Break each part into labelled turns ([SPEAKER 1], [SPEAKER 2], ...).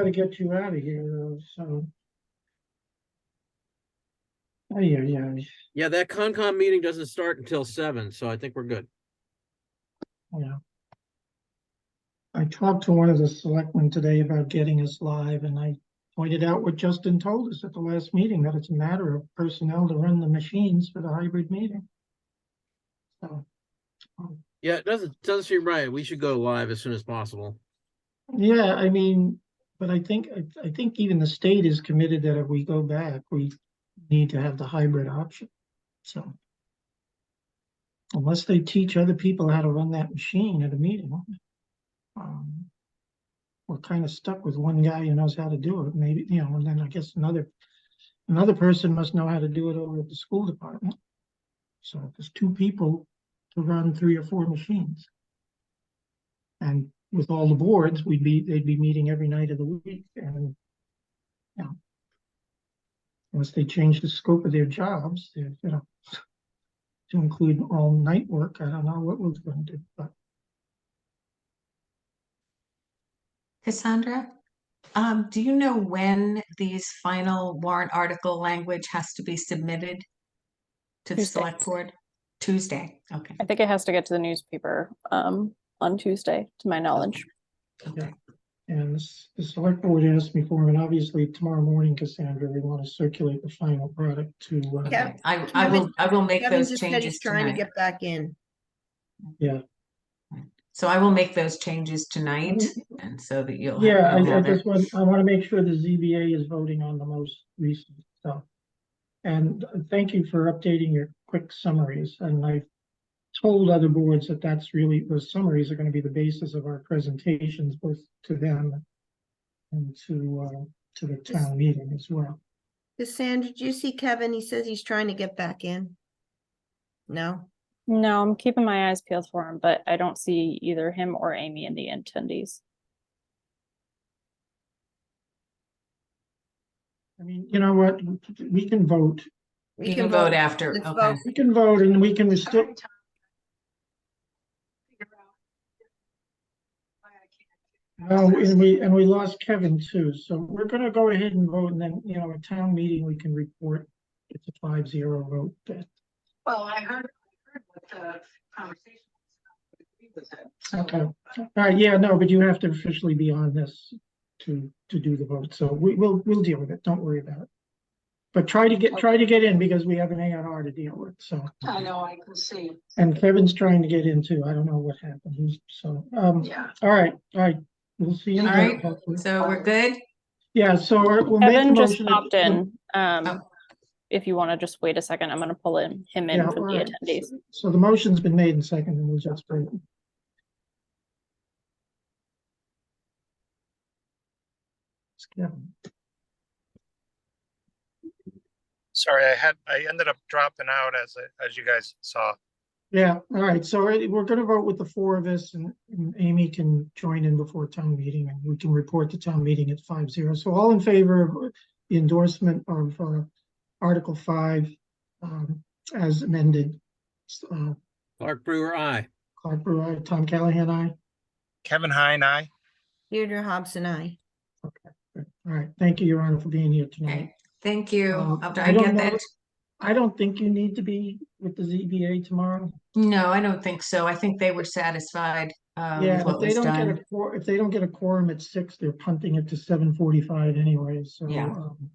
[SPEAKER 1] gotta get you out of here, though, so. Ay, ay, ay.
[SPEAKER 2] Yeah, that Concom meeting doesn't start until seven, so I think we're good.
[SPEAKER 1] Yeah. I talked to one of the selectmen today about getting us live and I pointed out what Justin told us at the last meeting, that it's a matter of personnel to run the machines for the hybrid meeting. So,
[SPEAKER 2] Yeah, it doesn't, doesn't seem right. We should go live as soon as possible.
[SPEAKER 1] yeah, I mean, but I think, I, I think even the state is committed that if we go back, we need to have the hybrid option, so. Unless they teach other people how to run that machine at a meeting. um, We're kind of stuck with one guy who knows how to do it, maybe, you know, and then I guess another, another person must know how to do it over at the school department. So if there's two people to run three or four machines. And with all the boards, we'd be, they'd be meeting every night of the week and. Yeah. Unless they change the scope of their jobs, they're, you know. To include all night work, I don't know what we're gonna do, but
[SPEAKER 3] Cassandra, um, do you know when these final warrant article language has to be submitted to the
[SPEAKER 4] Tuesday.
[SPEAKER 3] select board? Tuesday, okay.
[SPEAKER 4] I think it has to get to the newspaper um on Tuesday, to my knowledge.
[SPEAKER 3] Okay.
[SPEAKER 1] and this, the select board asked me for, it, and obviously tomorrow morning, Cassandra, we wanna circulate the final product to. uh,
[SPEAKER 5] Yeah.
[SPEAKER 3] Okay. I, I
[SPEAKER 5] Kevin-
[SPEAKER 3] will, I will make
[SPEAKER 5] Kevin
[SPEAKER 3] those
[SPEAKER 5] just said he's
[SPEAKER 3] changes
[SPEAKER 5] trying to
[SPEAKER 3] tonight.
[SPEAKER 5] get back in.
[SPEAKER 3] So I will make those changes tonight
[SPEAKER 5] Mm-hmm.
[SPEAKER 3] and so that you'll.
[SPEAKER 1] Yeah,
[SPEAKER 3] you'll
[SPEAKER 1] I, I
[SPEAKER 3] have it.
[SPEAKER 1] just want, I wanna make sure the ZBA is voting on the most recent stuff. And thank you for updating your quick summaries, and I've told other boards that that's really, those summaries are gonna be the basis of our presentations, both to them and to, uh, to the town meeting as well.
[SPEAKER 5] Cassandra, did you see Kevin? He says he's trying to get back in. No,
[SPEAKER 4] No, I'm keeping my eyes peeled for him, but I don't see either him or Amy in the attendees.
[SPEAKER 1] I mean, you know what, we can vote,
[SPEAKER 3] You can vote after,
[SPEAKER 5] Let's
[SPEAKER 3] okay.
[SPEAKER 5] vote.
[SPEAKER 1] we can vote and we can still,
[SPEAKER 6] Every time I figure out why I can't do
[SPEAKER 1] No,
[SPEAKER 6] it.
[SPEAKER 1] and we, and we lost Kevin too, so we're gonna go ahead and vote, and then, you know, at town meeting, we can report. It's a five zero vote, but,
[SPEAKER 6] Well, I heard, I heard what the conversation was. I agree with it. So,
[SPEAKER 1] okay, all right, uh, yeah, no, but you have to officially be on this to, to do the vote, so we, we'll, we'll deal with it, don't worry about it. But try to get, try to get in, because we have an A and R to deal with, so,
[SPEAKER 6] I know, I can see,
[SPEAKER 1] and Kevin's trying to get in too, I don't know what happened, he's- so, um,
[SPEAKER 6] yeah.
[SPEAKER 1] all right, all right, we'll see you. in
[SPEAKER 3] All
[SPEAKER 1] there,
[SPEAKER 3] right,
[SPEAKER 1] hopefully.
[SPEAKER 3] So we're good?
[SPEAKER 1] Yeah, so uh, we'll make the
[SPEAKER 4] Kevin just
[SPEAKER 1] motion-
[SPEAKER 4] popped in. Um,
[SPEAKER 3] Oh.
[SPEAKER 4] if you want to just wait a second, I'm gonna pull in him
[SPEAKER 1] Yeah,
[SPEAKER 4] in for
[SPEAKER 1] all
[SPEAKER 4] the
[SPEAKER 1] right.
[SPEAKER 4] attendees.
[SPEAKER 1] So the motion's been made and seconded, and we'll just vote. It's Kevin.
[SPEAKER 7] Sorry, I had, I ended up dropping out as, I- as you guys saw.
[SPEAKER 1] Yeah, all right, so I- we're gonna vote with the four of us and and Amy can join in before town meeting and we can report to town meeting at five zero. So all in favor of the endorsement of uh Article five um as amended. S- Uh
[SPEAKER 2] Clark Brewer, I.
[SPEAKER 1] Clark Brewer, aye. Tom Callahan, I.
[SPEAKER 7] Kevin Heine, aye.
[SPEAKER 5] Deirdre Hobson, I.
[SPEAKER 1] All right, thank you, Your Honor, for being here tonight.
[SPEAKER 3] Okay, thank you.
[SPEAKER 1] Um,
[SPEAKER 3] I'll-
[SPEAKER 1] I
[SPEAKER 3] I
[SPEAKER 1] don't
[SPEAKER 3] get
[SPEAKER 1] know
[SPEAKER 3] that.
[SPEAKER 1] if- I don't think you need to be with the ZBA tomorrow.
[SPEAKER 3] No, I don't think so. I think they were satisfied, um,
[SPEAKER 1] Yeah,
[SPEAKER 3] with what
[SPEAKER 1] if they
[SPEAKER 3] was
[SPEAKER 1] don't get a,
[SPEAKER 3] done.
[SPEAKER 1] quor- if they don't get a quorum at six, they're punting it to seven forty-five anyway, so.
[SPEAKER 3] Yeah.
[SPEAKER 1] um,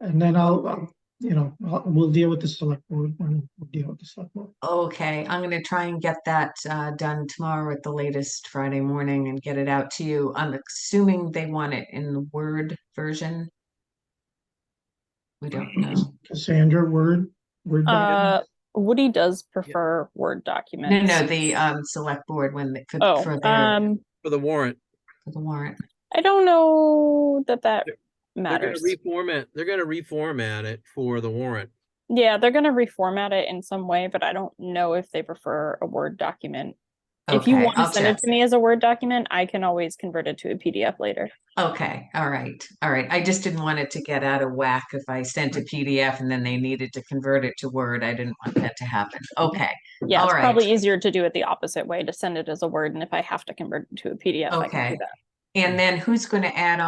[SPEAKER 1] And then I'll, I'll, you know, I'll- we'll deal with the select board when we deal with the select board.
[SPEAKER 3] Okay, I'm gonna try and get that uh done tomorrow at the latest Friday morning and get it out to you. I'm assuming they want it in the Word version. We don't know.
[SPEAKER 1] Cassandra, word, word. document?
[SPEAKER 4] Uh, Woody does prefer Word
[SPEAKER 3] No,
[SPEAKER 4] documents.
[SPEAKER 3] no, the um select board when they could for
[SPEAKER 4] Oh,
[SPEAKER 3] their
[SPEAKER 4] um,
[SPEAKER 2] for the warrant.
[SPEAKER 3] for the warrant.
[SPEAKER 4] I don't know that that
[SPEAKER 2] They're gonna
[SPEAKER 4] matters.
[SPEAKER 2] reformat, they're gonna reformat it for the warrant.
[SPEAKER 4] Yeah, they're gonna reformat it in some way, but I don't know if they prefer a Word document. If you
[SPEAKER 3] Okay,
[SPEAKER 4] want to
[SPEAKER 3] I'll
[SPEAKER 4] send
[SPEAKER 3] check.
[SPEAKER 4] it to me as a Word document, I can always convert it to a PDF later.
[SPEAKER 3] Okay, all right, all right. I just didn't want it to get out of whack if I sent a PDF and then they needed to convert it to Word. I didn't want that to happen.
[SPEAKER 4] Mm-hmm.
[SPEAKER 3] Okay,
[SPEAKER 4] Yeah, it's
[SPEAKER 3] Alright.
[SPEAKER 4] probably easier to do it the opposite way, to send it as a Word, and if I have to convert it to a PDF, I can do
[SPEAKER 3] Okay.
[SPEAKER 4] that.
[SPEAKER 3] and then who's gonna add